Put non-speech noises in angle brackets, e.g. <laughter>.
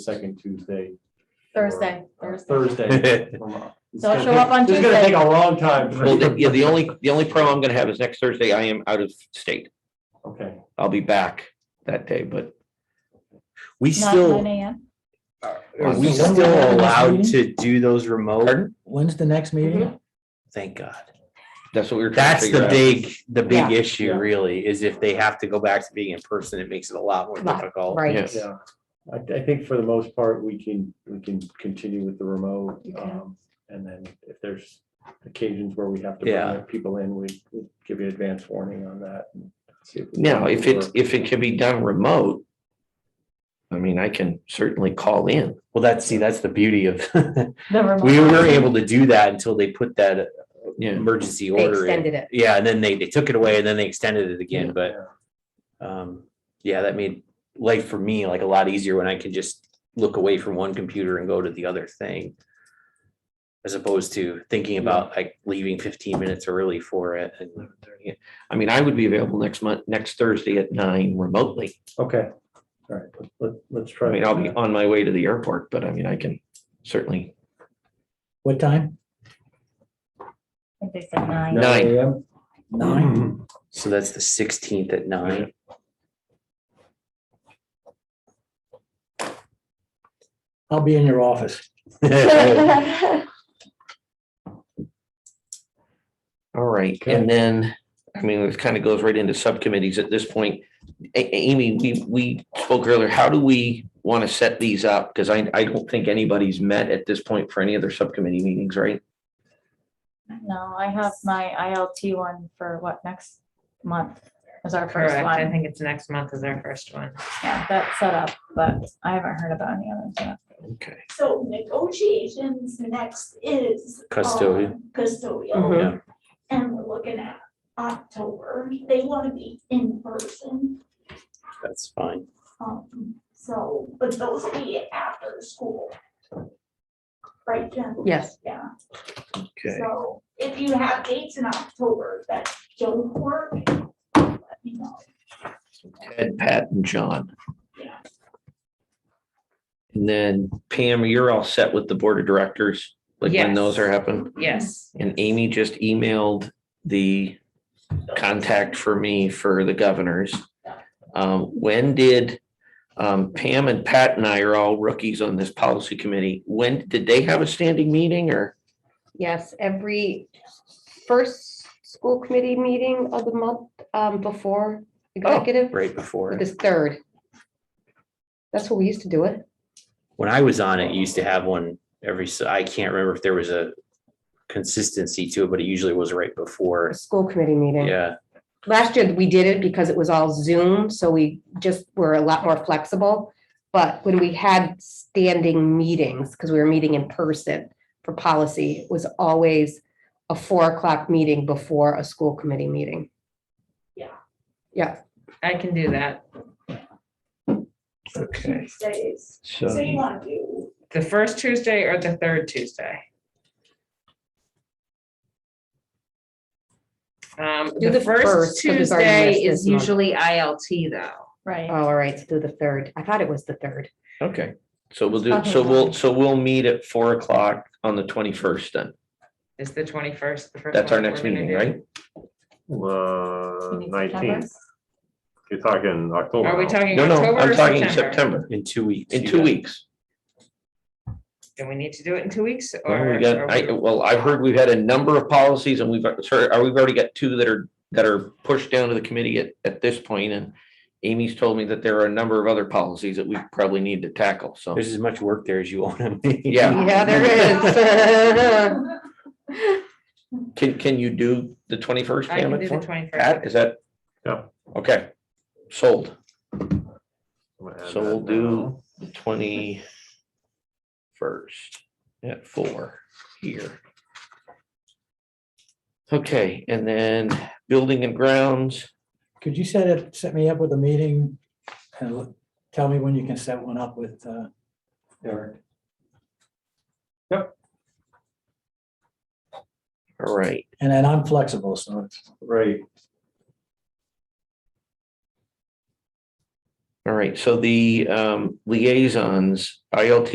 second Tuesday. Thursday, or, uh, Thursday. <laughs> <laughs> Thursday. It's So I'll gonna show up take- on It's gonna Tuesday. take a long time. Well, the- yeah, the only, the only problem I'm gonna have is next Thursday, I am out of state. Okay, I'll be back that day, but We Not still, nine AM. are we When's the still next allowed meeting? to do those remote? Pardon? When's the next Mm-hmm. meeting? Thank God. that's what we were trying to That's figure the out. big, the Yeah. big issue Yeah. really, is if they have to go back to being in person, it makes it a lot more Lot, difficult. Yeah. yeah. I, I think for the most part, we can, we can continue with the remote. um, And then if there's occasions where we have to Yeah. bring people in, we we give you advance warning on that. and see if we can Now, if it's, work. if it can be done remote, I mean, I can certainly call in. Well, that's, see, that's the beauty of, <laughs> The remote. we were able to do that until they put that Yeah. emergency They order in. extended it. Yeah, and then they, they took it away and then they extended it again, but Yeah. um, yeah, that made life for me like a lot easier when I can just look away from one computer and go to the other thing. As opposed to thinking about like leaving fifteen minutes early for it and. I mean, I would be available next month, next Thursday at nine remotely. Okay, all right, let- let, let's I try. mean, I'll be on my way to the airport, but I mean, I can certainly, What time? I think they said nine. <laughs> No. Nine. Mm-hmm. AM? Nine. So that's the sixteenth at nine. I'll be in your office. <laughs> all right. Okay. And then, I mean, this kind of goes right into subcommittees at this point. A- A- Amy, we, we spoke earlier, how do we want to set these up? Because I, I don't think anybody's met at this point for any of their subcommittee meetings, right? No, I have my ILT one for what, next month is our first Correct. I one. think it's next month is our first one. Yeah, that's set up, but I haven't heard about any others yet. Okay. So negotiations next is. um, Custodian. Custodial, Mhm. Yeah, and we're looking at October, they wanna be in person, that's fine. um, so, but those will be after school. Right, Jen? Yes. Yeah, Okay. so if you have dates in October that don't work, let me know. Ed, Pat, and John. Yeah. And then Pam, you're all set with the board of directors, like when Yes. those are happening. Yes. And Amy just emailed the contact for me for the governors. Um, when did, um, Pam and Pat and I are all rookies on this policy committee. When, did they have a standing meeting or? Yes, every first school committee meeting of the month um, before executive Right before. is third. That's what we used to do it. When I was on it, you used to have one every, s- I can't remember if there was a consistency to it, but it usually was right before. a School committee meeting. Yeah, Last year, we did it because it was all Zoom, so we just were a lot more flexible. But when we had standing meetings, because we were meeting in person for policy, it was always a four o'clock meeting before a school committee meeting. Yeah. Yeah. I can do that. Okay. Days, so you So, wanna do, The first Tuesday or the third Tuesday? Um, Do the the first first, 'cause it's already Tuesday missed is this month. usually ILT though. Right. Uh, All right, so do the third. I thought it was the third. okay, so we'll do, so we'll, so we'll meet at four o'clock on the twenty-first then. Is the twenty-first. That's our next meeting, right? You Uh, need September? nineteenth, you're talking October. Are we now. talking No, no, October I'm or talking September? September, in two weeks. in you two got- weeks. Do we need to do it in two weeks Well, or? we got, or I, well, I've heard we've had a number of policies and we've, sorry, uh, we've already got two that are, that are pushed down to the committee at, at this point, and Amy's told me that there are a number of other policies that we probably need to tackle, so. There's as much work there as you want. <laughs> Yeah, Yeah, <laughs> there is. can, can you do the twenty-first, I Pam? can do at the four? twenty-first. Pat, is that? Yeah. Okay, sold, I'm gonna add so we'll that do now. the twenty-first at four here. Okay, and then building and grounds. Could you set it, set me up with a meeting and l- tell me when you can set one up with uh, Eric? All right, And then I'm flexible, so it's Right, All right, so the um liaisons, ILT